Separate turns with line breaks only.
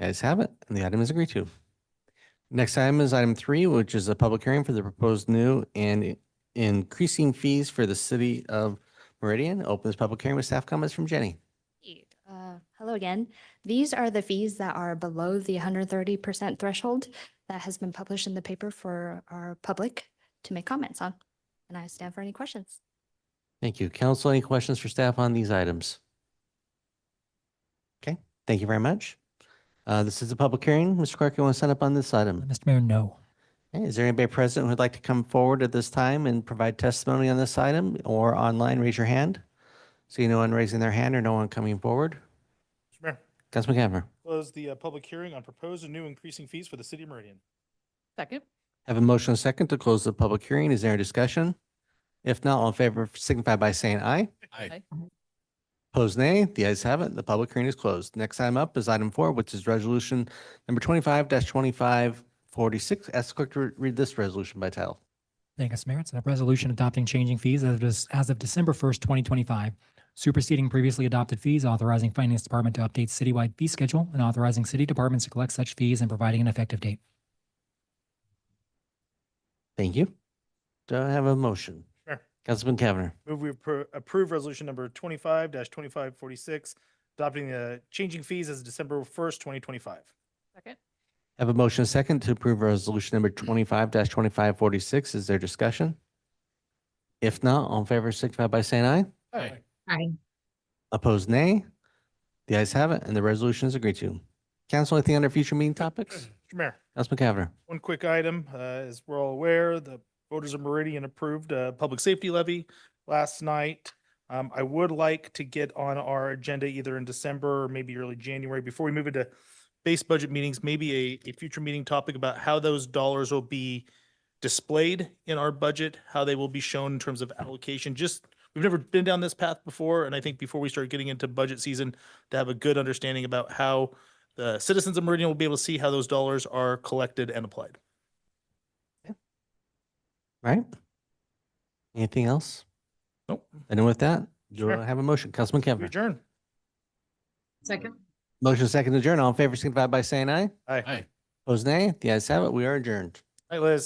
Guys have it, and the item is agreed to. Next item is item three, which is a public hearing for the proposed new and i- increasing fees for the city of Meridian. Open this public hearing with staff comments from Jenny.
Indeed. Uh, Hello again. These are the fees that are below the 130% threshold that has been published in the paper for our public to make comments on. And I stand for any questions.
Thank you. Council, any questions for staff on these items? Okay, thank you very much. Uh, This is a public hearing. Mr. Clark, you want to sign up on this item?
Mr. Mayor, no.
Okay, Is there anybody present who'd like to come forward at this time and provide testimony on this item or online? Raise your hand. See no one raising their hand or no one coming forward.
Mr. Mayor,
Councilman Cavanagh.
close the uh, public hearing on proposed and new increasing fees for the city of Meridian.
Second.
Have a motion and a second to close the public hearing. Is there a discussion? If not, all in favor signify by saying aye.
Aye.
Opposed, nay. The ayes have it. The public hearing is closed. Next item up is item four, which is resolution number twenty-five twenty-five forty-six. Ask the clerk to re- read this resolution by title.
Thank you, Mr. Mayor. It's a resolution adopting changing fees as of, this- as of December first, twenty twenty-five, superseding previously adopted fees, authorizing Finance Department to update citywide fee schedule, and authorizing city departments to collect such fees and providing an effective date.
Thank you. Do I have a motion?
Sure.
Councilman Cavanagh.
Move we appro- approve resolution number twenty-five twenty-five forty-six, adopting the changing fees as of December first, twenty twenty-five.
Second.
Have a motion and a second to approve resolution number twenty-five twenty-five forty-six. Is there discussion? If not, all in favor signify by saying aye.
Aye.
Aye.
Opposed, nay. The ayes have it, and the resolution is agreed to. Council, anything under future meeting topics?
Mr. Mayor,
Councilman Cavanagh.
one quick item, uh, as we're all aware, the voters of Meridian approved a public safety levy last night. Um, I would like to get on our agenda either in December or maybe early January, before we move into base budget meetings, maybe a, a future meeting topic about how those dollars will be displayed in our budget, how they will be shown in terms of allocation, just, we've never been down this path before, and I think before we start getting into budget season, to have a good understanding about how the citizens of Meridian will be able to see how those dollars are collected and applied.
Right? Anything else?
Nope.
And with that, do
Sure.
I have a motion? Councilman
We
Cavanagh.
Adjourn.
Second.
Motion second to adjourn. All in favor signify by saying aye.
Aye.
Opposed, nay. The ayes have it. We are adjourned.
Hi, Liz.